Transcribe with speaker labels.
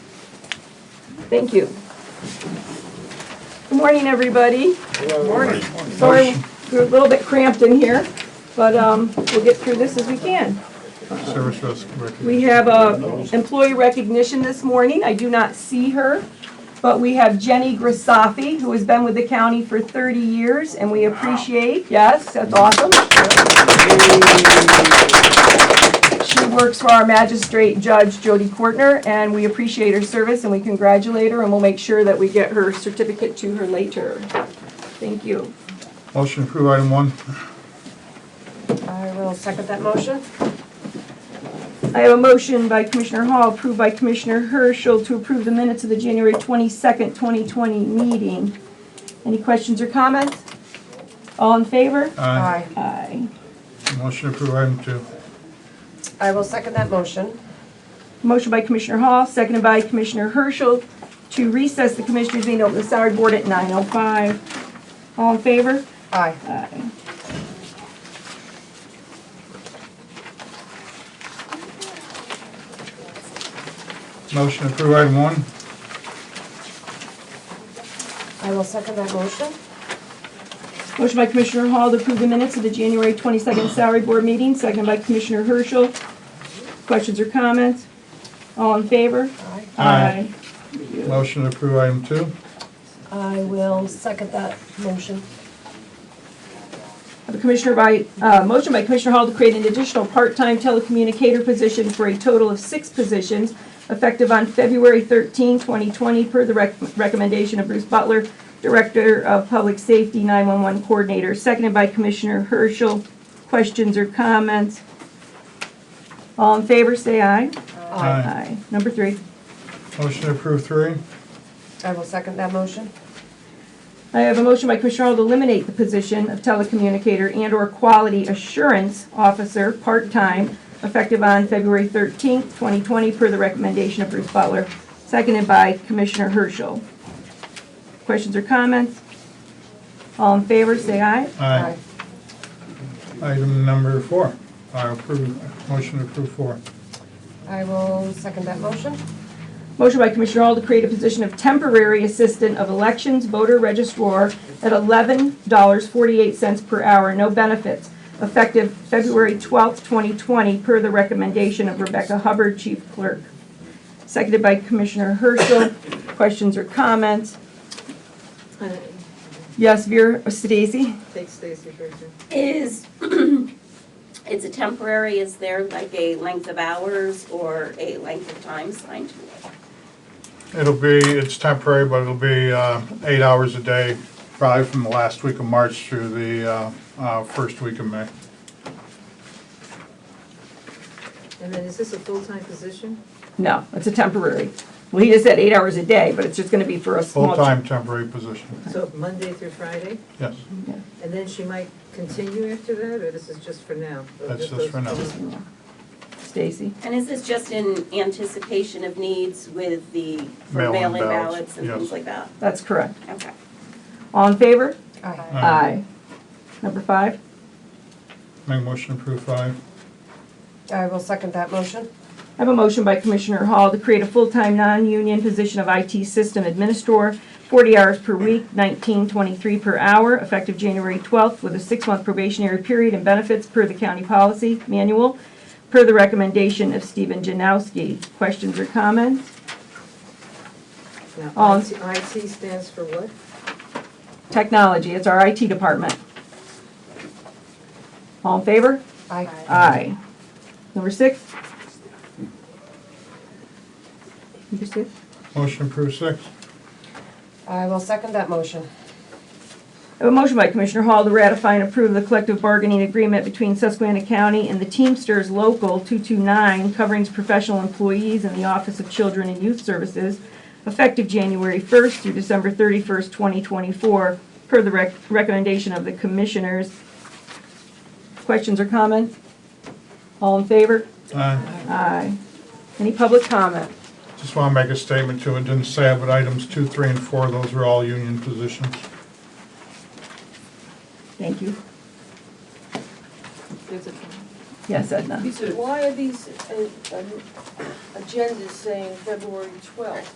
Speaker 1: Thank you. Good morning, everybody.
Speaker 2: Morning.
Speaker 1: Sorry, we're a little bit cramped in here, but um, we'll get through this as we can.
Speaker 2: Service risk
Speaker 1: We
Speaker 2: recognition.
Speaker 1: have a employee recognition this morning. I do not see her, but we have Jenny Grisafi, who has been with the county for 30 years, and we appreciate, yes, that's awesome. She works for our magistrate judge, Jody Courtner, and we appreciate her service, and we congratulate her, and we'll make sure that we get her certificate to her later. Thank you.
Speaker 2: Motion to approve item one.
Speaker 3: I will second that motion.
Speaker 1: I have a motion by Commissioner Hall, approved by Commissioner Herschel, to approve the minutes of the January 22nd, 2020 meeting. Any questions or comments? All in favor?
Speaker 2: Aye.
Speaker 1: Aye.
Speaker 2: Motion to approve item two.
Speaker 3: I will second that motion.
Speaker 1: Motion by Commissioner Hall, seconded by Commissioner Herschel, to recess the Commissioners' meeting, open the salary board at 9:05. All in favor?
Speaker 3: Aye.
Speaker 1: Aye.
Speaker 2: Motion to approve item one.
Speaker 3: I will second that motion.
Speaker 1: Motion by Commissioner Hall to approve the minutes of the January 22nd Salary Board meeting, seconded by Commissioner Herschel. Questions or comments? All in favor?
Speaker 3: Aye.
Speaker 2: Aye. Motion to approve item two.
Speaker 3: I will second that motion.
Speaker 1: Have a Commissioner by, uh, motion by Commissioner Hall to create an additional part-time telecommunicator position for a total of six positions effective on February 13, 2020, per the rec- recommendation of Bruce Butler, Director of Public Safety 911 Coordinator, seconded by Commissioner Herschel. Questions or comments? All in favor, say aye. Aye. Number three.
Speaker 2: Motion to approve three.
Speaker 3: I will second that motion.
Speaker 1: I have a motion by Commissioner Hall to eliminate the position of telecommunicator and/or quality assurance officer, part-time, effective on February 13th, 2020, per the recommendation of Bruce Butler, seconded by Commissioner Herschel. Questions or comments? All in favor, say aye.
Speaker 2: Aye. Item number four. I approve, motion to approve four.
Speaker 3: I will second that motion.
Speaker 1: Motion by Commissioner Hall to create a position of temporary assistant of elections voter registrar at $11.48 per hour, no benefits, effective February 12th, 2020, per the recommendation of Rebecca Hubbard, Chief Clerk. Seconded by Commissioner Herschel. Questions or comments? Yes, Vera uh, Stacy?
Speaker 4: Take Stacy Bridger.
Speaker 5: is, it's a temporary, is there like a length of hours or a length of time signed to it?
Speaker 2: It'll be, it's temporary, but it'll be uh, eight hours a day, probably from the last week of March through the uh, uh, first week of May.
Speaker 4: And then is this a full-time position?
Speaker 1: No, it's a temporary. Well, he just said eight hours a day, but it's just going to be for a small.
Speaker 2: Full-time temporary position,
Speaker 4: So Monday through Friday?
Speaker 2: yes.
Speaker 4: And then she might continue after that, or this is just for now?
Speaker 2: That's just for now.
Speaker 1: Stacy?
Speaker 5: And is this just in anticipation of needs with the for
Speaker 2: Mail-in
Speaker 5: mail-in
Speaker 2: ballots,
Speaker 5: ballots and
Speaker 2: yes.
Speaker 5: things like that?
Speaker 1: That's correct.
Speaker 5: Okay.
Speaker 1: All in favor?
Speaker 3: Aye.
Speaker 1: Aye. Number five,
Speaker 2: Make motion to approve five.
Speaker 3: I will second that motion.
Speaker 1: I have a motion by Commissioner Hall to create a full-time, non-union position of IT system administrator, 40 hours per week, 19.23 per hour, effective January 12th, with a six-month probationary period and benefits per the county policy manual, per the recommendation of Stephen Janowski. Questions or comments?
Speaker 4: Now,
Speaker 1: All-
Speaker 4: IT IT stands for what?
Speaker 1: Technology, it's our IT department. All in favor?
Speaker 3: Aye.
Speaker 1: Aye. Number six? Number six?
Speaker 2: Motion to approve six.
Speaker 3: I will second that motion.
Speaker 1: I have a motion by Commissioner Hall to ratify and approve the collective bargaining agreement between Susquehanna County and the Teamsters Local 229 covering professional employees in the Office of Children and Youth Services effective January 1st through December 31st, 2024, per the rec- recommendation of the Commissioners. Questions or comments? All in favor?
Speaker 2: Aye.
Speaker 1: Aye. Any public comment?
Speaker 2: Just want to make a statement too. It didn't say it, but items two, three, and four, those are all union positions.
Speaker 1: Thank you.
Speaker 6: There's a-
Speaker 1: Yes, Edna.
Speaker 6: Why are these uh, um, agendas saying February 12th?